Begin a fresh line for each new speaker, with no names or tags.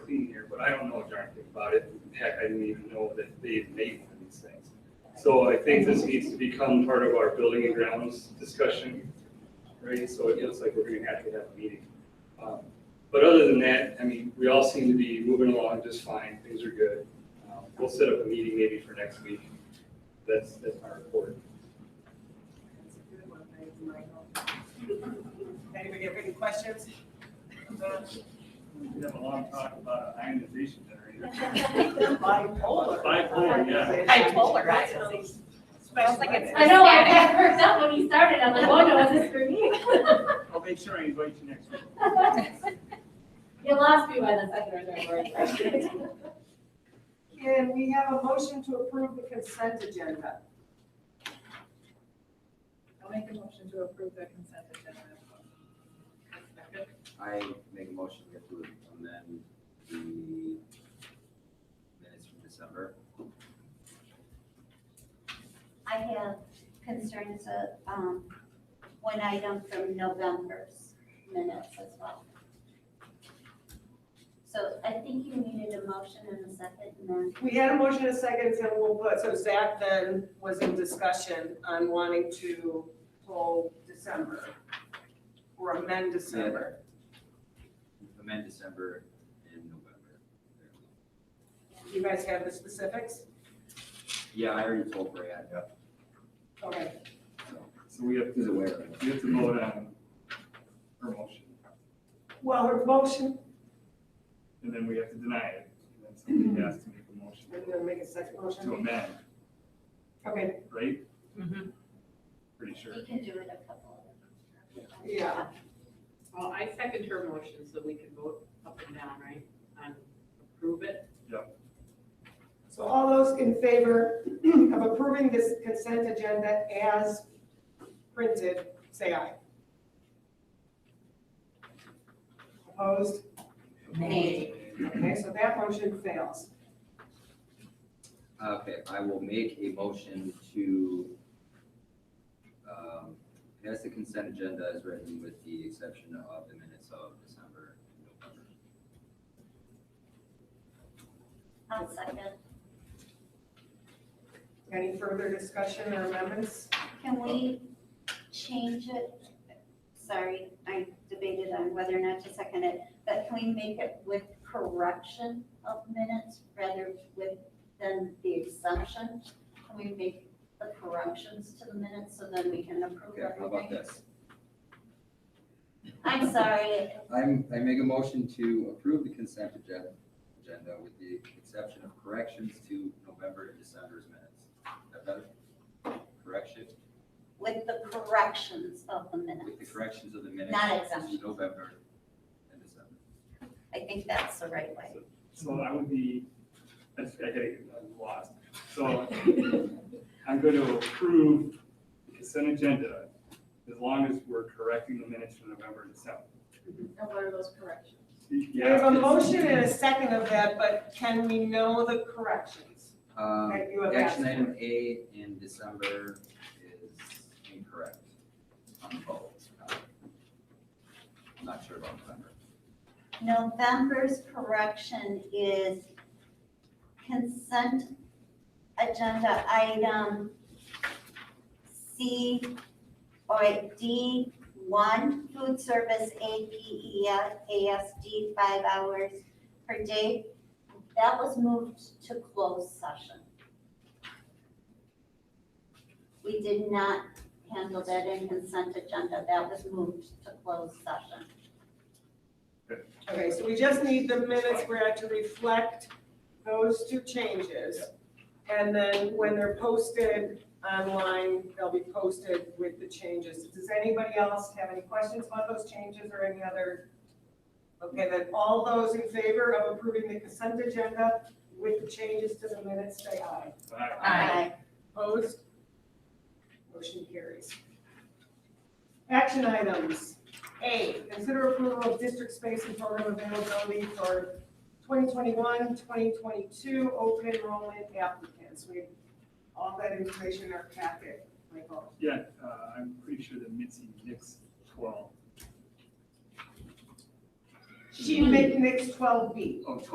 I don't know a darn thing about it. Heck, I didn't even know that they made one of these things. So I think this needs to become part of our building and grounds discussion, right? So it looks like we're gonna have to have a meeting. Um, But other than that, I mean, we all seem to be moving along just fine, things are good. Um, We'll set up a meeting maybe for next week. That's, that's my report.
That's a good one, thank you, Michael. Anybody have any questions?
We have a long talk about ionization generator.
Bipolar.
Bipolar, yeah.
Bipolar, right.
Special.
Like it's-
I know, I got freaked out when you started, I'm like, oh no, is this for me?
I'll make sure I invite you next week.
You lost me by the second or third word.
Can we have a motion to approve the consent agenda?
I'll make a motion to approve the consent agenda.
I make a motion to approve and then the minutes from December.
I have concerns of, um, one item from November's minutes as well. So I think you needed a motion and a second and then
We had a motion and a second, so we'll put, so Zach then was in discussion on wanting to hold December or amend December.
Amend December and November. There we go.
You guys have the specifics?
Yeah, I already told Brad,
Okay.
so
So we have
he's
to,
aware of it.
we have to vote on her motion,
Well, her motion,
and then we have to deny it. And then
Mm-hmm.
somebody has to make a motion
I'm gonna make a second
to
motion.
amend,
Okay,
right? Pretty sure.
you can do it a couple of.
yeah.
Well, I second her motion so we can vote up and down, right, and approve it.
So all those in favor of approving this consent agenda as printed, say aye. Opposed? Okay, so that motion fails.
Okay, I will make a motion to um, pass the consent agenda as written with the exception of the minutes of December and November.
I'll second.
Any further discussion or amendments?
Can we change it? Sorry, I debated on whether or not to second it, but can we make it with correction of minutes rather with than the exemption? Can we make the corrections to the minutes so then we can approve
Okay, how about
everything?
this?
I'm sorry,
I'm, I make a motion to approve the consent agenda, agenda with the exception of corrections to November and December's minutes. Is that better? Correction,
with the corrections of the
with the
minutes.
corrections of the minutes.
Not exemption.
to November and December.
I think that's the right way.
So I would be, I just- I gotta get I'm lost. So I'm going to approve the consent agenda as long as we're correcting the minutes from November and December.
Mm-hmm. And what are those corrections?
We have a
Yeah.
motion and a second of that, but can we know the corrections
Um,
that you have asked
action
for?
item A in December is incorrect on both. Uh, I'm Not sure about November.
November's correction is consent agenda item C or D one, food service E, APES, ASD, five hours per day. That was moved to closed session. We did not handle that in consent agenda. That was moved to closed session.
Okay, so we just need the minutes, we're to reflect those two changes. And then when they're posted online, they'll be posted with the changes. Does anybody else have any questions about those changes or any other? Okay, then all those in favor of approving the consent agenda with the changes to the minutes, say aye.
uh,
Aye.
Opposed? Motion carries. Action items. A, consider approval of district space and program availability for 2021, 2022 open enrollment applicants. We have all that information in our packet, Michael.
Yeah, uh, I'm pretty sure that Mitzi Nix twelve.
She made next 12B.
Oh,